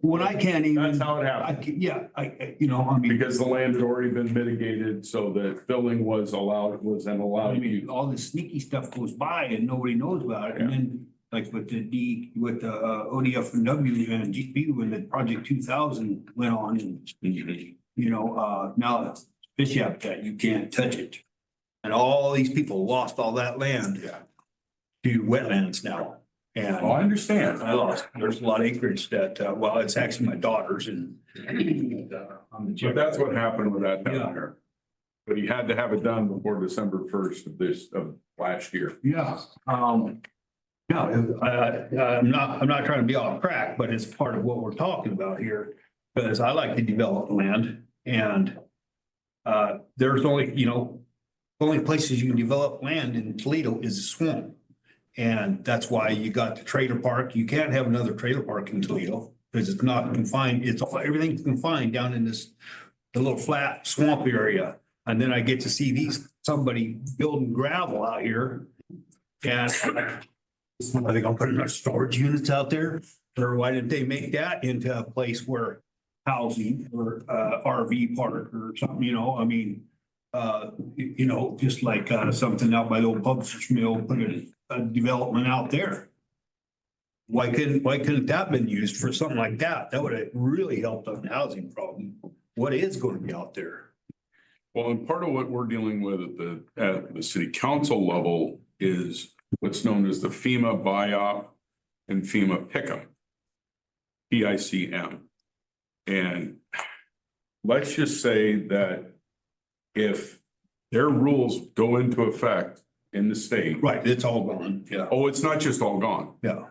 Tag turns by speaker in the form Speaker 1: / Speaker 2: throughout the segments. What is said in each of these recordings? Speaker 1: When I can't
Speaker 2: That's
Speaker 1: even,
Speaker 2: how it
Speaker 1: I,
Speaker 2: happened,
Speaker 1: ca- yeah, I- I, you know, I mean,
Speaker 2: because the land had already been mitigated, so the filling was allowed, was an
Speaker 1: I
Speaker 2: allowed
Speaker 1: mean,
Speaker 2: use.
Speaker 1: all this sneaky stuff goes by and nobody knows about it. And then like with the D, with the uh, ODF and W and GP, when the project two thousand went on and,
Speaker 2: Mhm.
Speaker 1: you know, uh, now it's fish habitat, you can't touch it. And all these people lost all that land
Speaker 2: Yeah.
Speaker 1: to wetlands now. And
Speaker 2: Oh, I understand.
Speaker 1: I lost, there's a lot of acreage that, uh, well, it's actually my daughter's and. But
Speaker 2: But that's what happened with that
Speaker 1: Yeah.
Speaker 2: down there. But he had to have it done before December first of this, of last year.
Speaker 1: Yeah, um, no, I, I, uh, I'm not, I'm not trying to be off track, but it's part of what we're talking about here. Because I like to develop land and, uh, there's only, you know, the only places you can develop land in Toledo is a swamp. And that's why you got the trailer park. You can't have another trailer park in Toledo because it's not confined, it's, all everything's confined down in this, the little flat swamp area. And then I get to see these, somebody building gravel out here and are they gonna put another storage units out there? Or why didn't they make that into a place where housing or uh RV park or something, you know, I mean, uh, you you know, just like uh something out by the old publisher's mill, put a, a development out there. Why couldn't, why couldn't that been used for something like that? That would have really helped on the housing problem. What is gonna be out there?
Speaker 2: Well, and part of what we're dealing with at the, at the city council level is what's known as the FEMA BIOP and FEMA PICM. P I C M. And let's just say that if their rules go into effect in the state,
Speaker 1: Right, it's all gone, yeah,
Speaker 2: oh, it's not just all gone.
Speaker 1: yeah.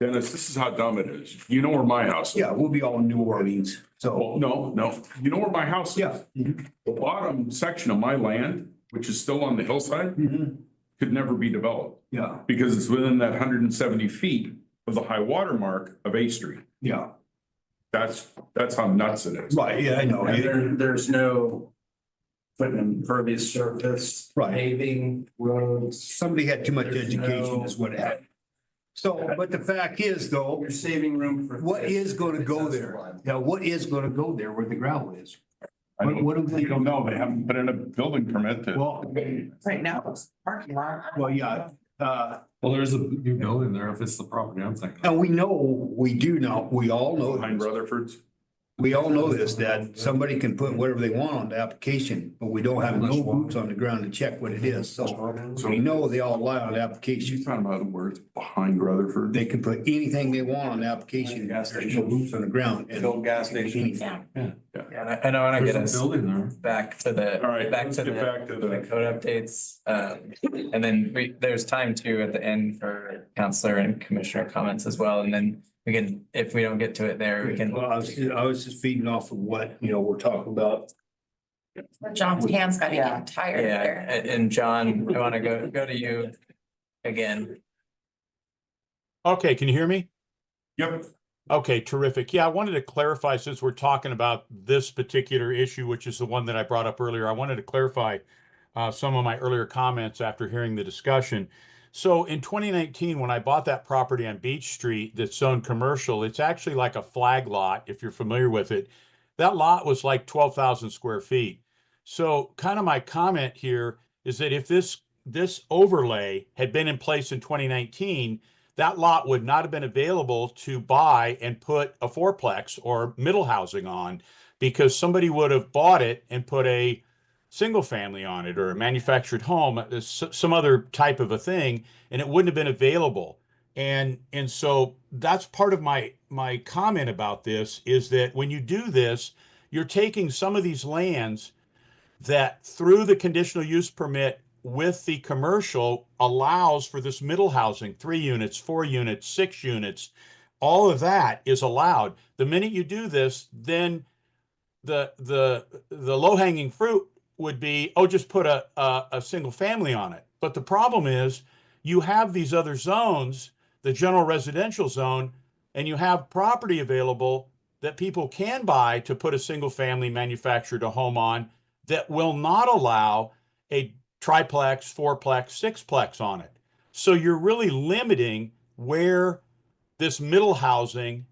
Speaker 2: Dennis, this is how dumb it is. You know where my house is.
Speaker 1: Yeah, we'll be all in New Orleans, so,
Speaker 2: Well, no, no, you know where my house is?
Speaker 1: yeah. mhm,
Speaker 2: The bottom section of my land, which is still on the hillside,
Speaker 1: mhm,
Speaker 2: could never be developed
Speaker 1: Yeah,
Speaker 2: because it's within that hundred and seventy feet of the high water mark of A Street.
Speaker 1: yeah,
Speaker 2: That's, that's how nuts it is.
Speaker 1: right, yeah, I know,
Speaker 3: And
Speaker 1: it-
Speaker 3: Oh, there, there's no putting impervious surface,
Speaker 1: Right.
Speaker 3: paving, roads.
Speaker 1: somebody had too much
Speaker 3: There's
Speaker 1: education
Speaker 3: no-
Speaker 1: is what happened. So, but the fact is though,
Speaker 3: You're saving room for.
Speaker 1: what is gonna go there? Yeah, what is gonna go there where the gravel is? What, what do
Speaker 2: We
Speaker 1: we,
Speaker 2: don't know. They haven't put in a building permit to.
Speaker 1: well,
Speaker 4: Right now, it's parking lot.
Speaker 1: well, yeah, uh,
Speaker 5: Well, there's a new building there if it's the property I'm thinking. of.
Speaker 1: and we know, we do know, we all know.
Speaker 2: Behind Rutherford's.
Speaker 1: We all know this, that somebody can put whatever they want on the application, but we don't have no boots on the ground to check what it is, so. We know they all lie on the application.
Speaker 2: She's talking about the words behind Rutherford.
Speaker 1: They can put anything they want on the application,
Speaker 3: Gas
Speaker 1: there's no boots on the ground. and-
Speaker 3: Old gas station.
Speaker 1: Anything.
Speaker 6: Yeah, and I- I know, and I get
Speaker 5: There's a
Speaker 6: us
Speaker 5: building there.
Speaker 6: back to the,
Speaker 2: All right,
Speaker 6: back
Speaker 2: let's
Speaker 6: to
Speaker 2: get
Speaker 6: the,
Speaker 2: back to
Speaker 6: the
Speaker 2: the,
Speaker 6: code updates. Um, and then we, there's time too at the end for counselor and commissioner comments as well. And then we can, if we don't get to it there, we can.
Speaker 1: Well, I was, I was just feeding off of what, you know, we're talking about.
Speaker 4: John's hand's got to
Speaker 6: Yeah.
Speaker 4: get tired
Speaker 6: Yeah,
Speaker 4: there.
Speaker 6: and, and John, I want to go, go to you again.
Speaker 7: Okay, can you hear me?
Speaker 2: yep,
Speaker 7: Okay, terrific. Yeah, I wanted to clarify since we're talking about this particular issue, which is the one that I brought up earlier, I wanted to clarify uh, some of my earlier comments after hearing the discussion. So in 2019, when I bought that property on Beach Street that's zoned commercial, it's actually like a flag lot, if you're familiar with it. That lot was like 12,000 square feet. So kind of my comment here is that if this this overlay had been in place in 2019, that lot would not have been available to buy and put a fourplex or middle housing on because somebody would have bought it and put a single family on it or a manufactured home, uh, s- some other type of a thing, and it wouldn't have been available. And and so that's part of my my comment about this is that when you do this, you're taking some of these lands that through the conditional use permit with the commercial allows for this middle housing, three units, four units, six units. All of that is allowed. The minute you do this, then the, the, the low hanging fruit would be, oh, just put a, a, a single family on it. But the problem is you have these other zones, the general residential zone, and you have property available that people can buy to put a single family manufactured a home on that will not allow a triplex, fourplex, sixplex on it. So you're really limiting where this middle housing